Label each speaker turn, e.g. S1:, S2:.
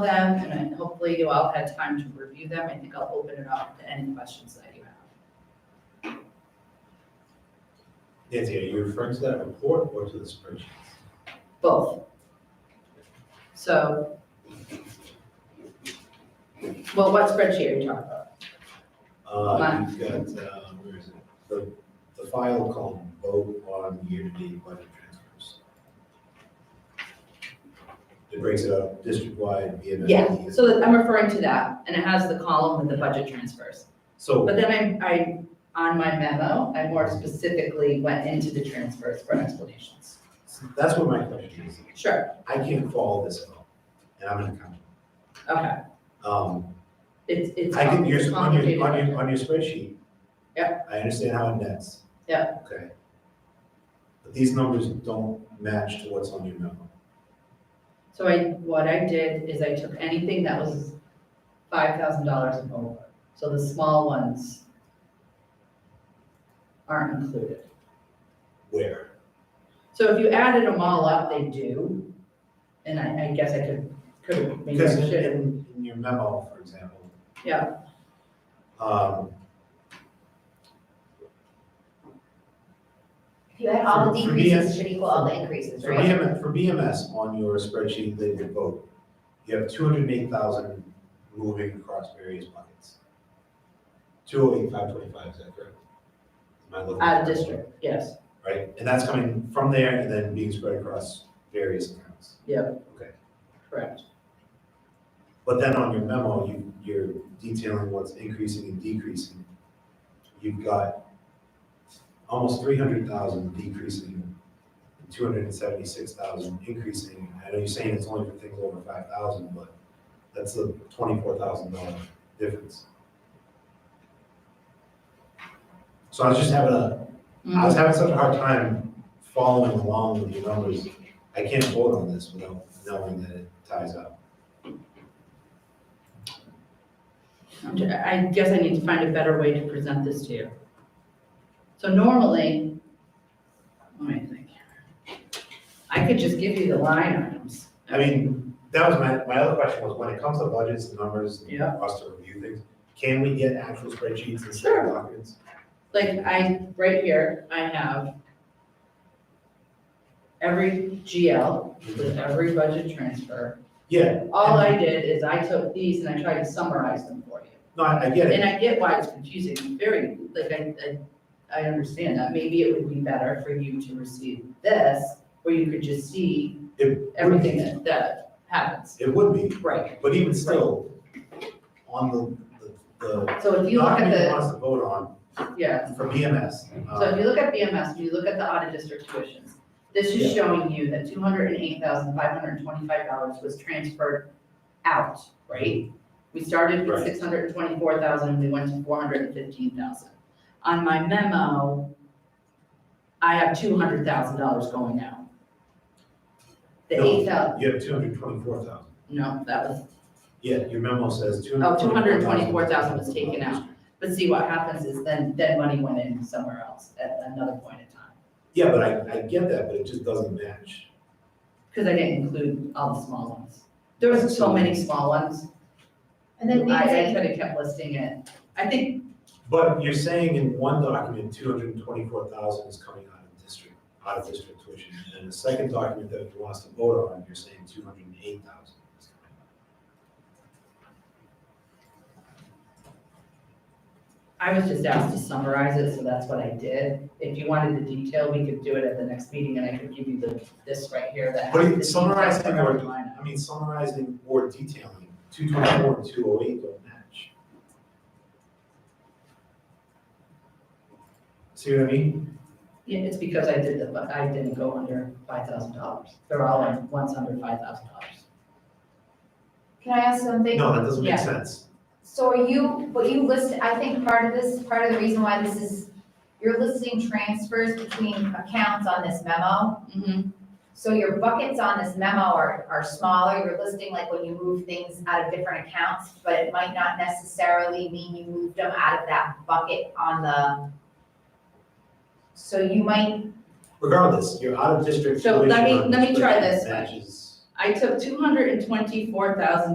S1: them, and then hopefully you all had time to review them. I think I'll open it up to any questions that you have.
S2: Nancy, are you referring to that report or to the spreadsheets?
S1: Both. So. Well, what spreadsheet are you talking about?
S2: Uh, you've got, uh, where is it? The, the file called vote on year-to-date budget transfers. It breaks it up district-wide, VMS.
S1: Yeah, so that- I'm referring to that, and it has the column with the budget transfers.
S2: So,
S1: But then I, I, on my memo, I more specifically went into the transfers for explanations.
S2: so that's what my question is.
S1: Sure,
S2: I can't follow this at all, and I'm an accountant.
S1: okay,
S2: Um,
S1: it's, it's
S2: I can,
S1: it's
S2: your, on
S1: complicated.
S2: your, on your, on your spreadsheet. I understand how it nets.
S1: Yep.
S2: Okay. But these numbers don't match to what's on your memo.
S1: So I, what I did is I took anything that was five thousand dollars and over, so the small ones aren't included.
S2: Where?
S1: So if you added them all up, they do, and I, I guess I could, could, maybe I
S2: Because in,
S1: should.
S2: in, in your memo, for example.
S1: Yeah.
S2: Um,
S3: If you had all the
S2: For- for me,
S3: decreases, it should equal all the increases,
S2: for
S3: right?
S2: BMS, for BMS on your spreadsheet that you vote, you have two hundred and eight thousand moving across various buckets. Two oh eight, five twenty-five, is that correct? Am I looking
S1: Out of
S2: correct?
S1: Uh, district, yes,
S2: Right, and that's coming from there and then being spread across various accounts.
S1: correct.
S2: But then on your memo, you, you're detailing what's increasing and decreasing. You've got almost three hundred thousand decreasing, two hundred and seventy-six thousand increasing. I know you're saying it's only for things over five thousand, but that's a twenty-four thousand dollar difference. So I was just having a, I was having such a hard time following along with your numbers. I can't vote on this without knowing that it ties up.
S1: I'm ju- I guess I need to find a better way to present this to you. So normally, let me think. I could just give you the line items.
S2: I mean, that was my, my other question was, when it comes to budgets and numbers, and
S1: Yeah.
S2: us to review things, can we get actual spreadsheets instead
S1: Sure.
S2: of documents?
S1: Like I, right here, I have every GL with every budget transfer.
S2: Yeah,
S1: All I did is I took these and I tried to summarize them for you.
S2: no, I, I get it,
S1: And I get why it's confusing, very, like, I, I, I understand that, maybe it would be better for you to receive this, where you could just see
S2: It
S1: everything that, that happens,
S2: it would be,
S1: right?
S2: but even still, on the, the,
S1: So if
S2: the
S1: you look
S2: document you
S1: at
S2: want us to vote on,
S1: the, yeah,
S2: for BMS,
S1: so if
S2: um,
S1: you look at BMS, when you look at the audit district tuitions, this is showing you that two hundred and eight thousand five hundred and twenty-five dollars was transferred out, right? We started with
S2: Right.
S1: six hundred and twenty-four thousand, we went to four hundred and fifteen thousand. On my memo, I have two hundred thousand dollars going out. The
S2: No.
S1: eight thousand,
S2: you have two hundred twenty-four thousand.
S1: no, that was,
S2: Yeah, your memo says two
S1: Oh,
S2: hundred twenty-four thousand.
S1: 224,000 was taken out. but see what happens is then, then money went in somewhere else at another point in time.
S2: Yeah, but I, I get that, but it just doesn't match.
S1: Because I didn't include all the small ones. There was so many small ones,
S3: And
S1: I,
S3: then
S1: I
S3: Nancy,
S1: could have kept listing it. I think,
S2: But you're saying in one document, two hundred and twenty-four thousand is coming out of district, out of district tuition. And in the second document that you want us to vote on, you're saying two hundred and eight thousand is coming out.
S1: I was just asked to summarize it, so that's what I did. If you wanted the detail, we could do it at the next meeting, and I could give you the, this right here that
S2: But
S1: has
S2: it-
S1: the
S2: summarizing
S1: details for
S2: or-
S1: every line item.
S2: I mean, summarizing or detailing, two twenty-four and two oh eight don't match. See what I mean?
S1: Yeah, it's because I did the, but I didn't go under five thousand dollars. They're all like once under five thousand dollars.
S3: can I ask something?
S2: No, that doesn't
S1: Yeah.
S2: make sense.
S3: So are you, what you list, I think part of this, part of the reason why this is, you're listing transfers between accounts on this memo.
S1: Mm-hmm.
S3: So your buckets on this memo are, are smaller, you're listing like when you move things out of different accounts, but it might not necessarily mean you moved them out of that bucket on the. So you might,
S2: Regardless, you're out of district
S1: So
S2: tuition.
S1: let me-
S2: on
S1: let me try
S2: district
S1: this one.
S2: Matches.
S1: I took two hundred and twenty-four thousand